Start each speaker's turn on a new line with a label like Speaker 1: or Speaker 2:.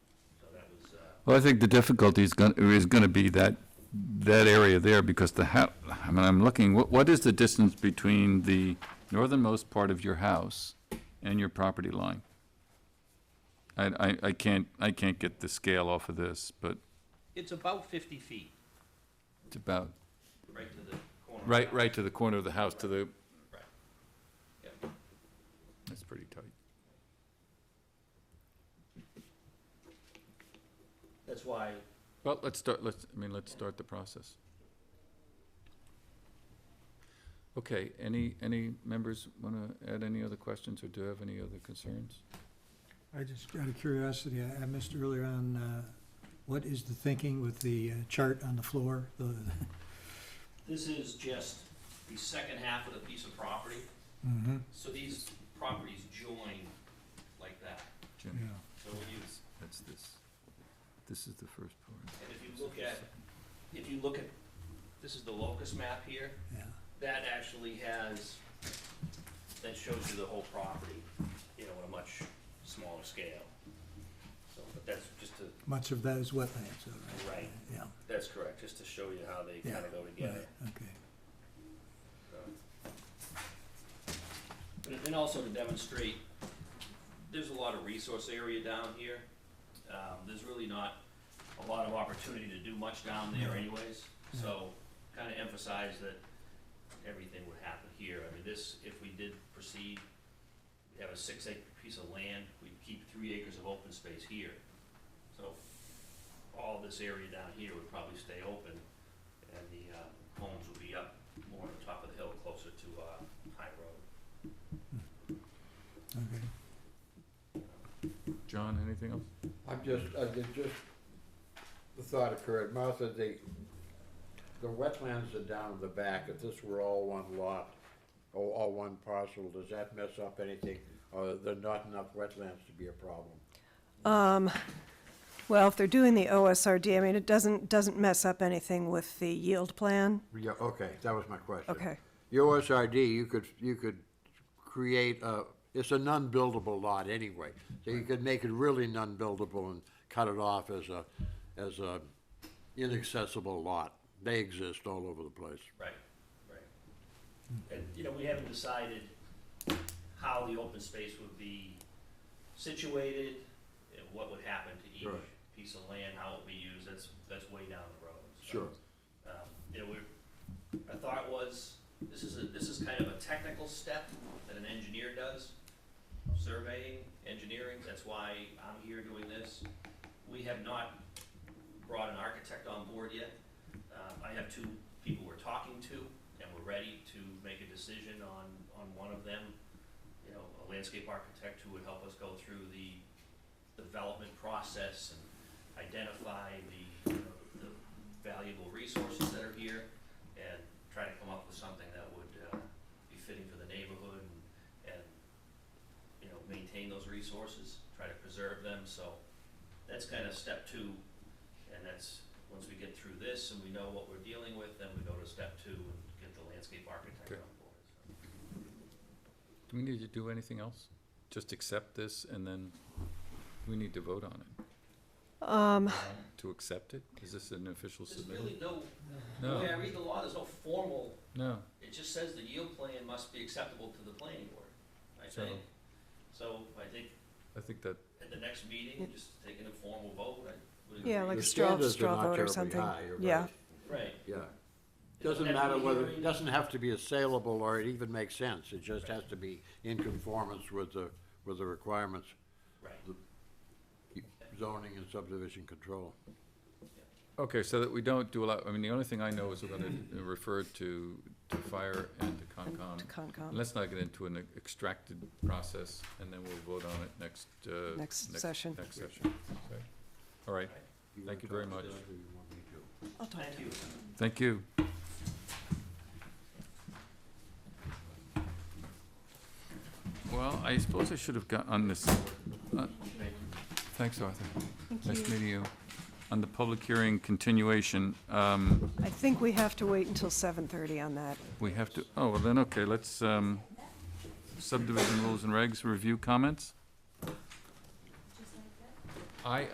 Speaker 1: Well, I think the difficulty is going, is going to be that, that area there, because the hou- I mean, I'm looking, what, what is the distance between the northernmost part of your house and your property line? I, I, I can't, I can't get the scale off of this, but
Speaker 2: It's about fifty feet,
Speaker 1: it's about,
Speaker 2: right to the corner.
Speaker 1: right, right to the corner of the house, to the,
Speaker 2: Yeah.
Speaker 1: that's pretty tight.
Speaker 2: That's why,
Speaker 1: Well, let's start, let's, I mean, let's start the process. Okay, any, any members want to add any other questions or do have any other concerns?
Speaker 3: I just, out of curiosity, I I missed earlier on, uh, what is the thinking with the uh, chart on the floor? The-
Speaker 2: this is just the second half of the piece of property,
Speaker 3: Mhm,
Speaker 2: so these properties join like that.
Speaker 3: yeah.
Speaker 1: Jim,
Speaker 2: So when you,
Speaker 1: that's this. This is the first part.
Speaker 2: and if you look at, if you look at, this is the locust map here,
Speaker 3: Yeah,
Speaker 2: that actually has, that shows you the whole property, you know, on a much smaller scale. So, but that's just to,
Speaker 3: Much of that is wetlands, though, right?
Speaker 2: Right.
Speaker 3: Yeah,
Speaker 2: that's correct, just to show you how they kind
Speaker 3: Yeah,
Speaker 2: of go together.
Speaker 3: right, okay.
Speaker 2: And- And also to demonstrate, there's a lot of resource area down here. Um, there's really not a lot of opportunity to do much down there anyways. So kind of emphasize that everything would happen here. I mean, this, if we did proceed, we have a six acre piece of land, we'd keep three acres of open space here. So all this area down here would probably stay open and the, uh, homes would be up more on top of the hill closer to, uh, High Road.
Speaker 3: Okay.
Speaker 1: John, anything else?
Speaker 4: I'm just, I did just, the thought occurred, Martha, the, the wetlands are down at the back, if this were all one lot, or all one parcel, does that mess up anything? Or there not enough wetlands to be a problem?
Speaker 5: Well, if they're doing the OSRD, I mean, it doesn't, doesn't mess up anything with the yield plan.
Speaker 4: Yeah, okay, that was my question.
Speaker 5: Okay.
Speaker 4: Your OSRD, you could, you could create a, it's a non-buildable lot anyway, so you could make it really non-buildable and cut it off as a, as a inaccessible lot. They exist all over the place.
Speaker 2: Right, right.
Speaker 4: Hmm.
Speaker 2: And, you know, we haven't decided how the open space would be situated and what would happen to each
Speaker 4: Right.
Speaker 2: piece of land, how it would be used, that's, that's way down the road. So,
Speaker 4: Sure.
Speaker 2: um, You know, we're, our thought was, this is a, this is kind of a technical step that an engineer does, surveying, engineering, that's why I'm here doing this. We have not brought an architect on board yet. Um, I have two people we're talking to, and we're ready to make a decision on, on one of them. You know, a landscape architect who would help us go through the development process and identify the, you know, the valuable resources that are here and try to come up with something that would, uh, be fitting for the neighborhood and, and, you know, maintain those resources, try to preserve them, so that's kind of step two. And that's, once we get through this and we know what we're dealing with, then we go to step two and get the landscape architect
Speaker 1: Okay.
Speaker 2: on board. so.
Speaker 1: Do we need to do anything else? Just accept this and then we need to vote on it? Um. To accept it? Is this an official
Speaker 2: There's
Speaker 1: submission?
Speaker 2: really no, the way I
Speaker 1: No,
Speaker 2: read the law, there's no formal
Speaker 1: no.
Speaker 2: It just says the yield plan must be acceptable to the planning board, I
Speaker 1: So-
Speaker 2: think. So I think
Speaker 1: I think that,
Speaker 2: at the next meeting, just take an informal vote, I would agree.
Speaker 5: Yeah, like a
Speaker 4: The
Speaker 5: straw,
Speaker 4: standards are
Speaker 5: straw
Speaker 4: not
Speaker 5: vote or
Speaker 4: terribly
Speaker 5: something.
Speaker 4: high, you're
Speaker 5: Yeah,
Speaker 4: right.
Speaker 2: Right,
Speaker 4: Yeah. Doesn't
Speaker 2: Have
Speaker 4: matter
Speaker 2: we
Speaker 4: whether,
Speaker 2: hearing-
Speaker 4: doesn't have to be assailable or it even makes sense. It just has to be in conformance with the, with the requirements,
Speaker 2: right.
Speaker 4: zoning and subdivision control.
Speaker 1: okay, so that we don't do a lot, I mean, the only thing I know is we're going to refer to, to fire and to Concom.
Speaker 5: to
Speaker 1: And
Speaker 5: Concom,
Speaker 1: Let's not get into an extracted process, and then we'll vote on it next, uh.
Speaker 5: Next session.
Speaker 1: Next session. Okay. All right, Thank you very
Speaker 4: wanna talk
Speaker 1: much.
Speaker 4: about it or you want me to?
Speaker 2: Thank you.
Speaker 1: thank you. Well, I suppose I should have got on this, uh, thanks, Arthur. Nice meeting you. On the public hearing continuation, um,
Speaker 5: I think we have to wait until 7:30 on that.
Speaker 1: we have to, oh, well then, okay, let's, um, subdivision rules and regs, review comments? I,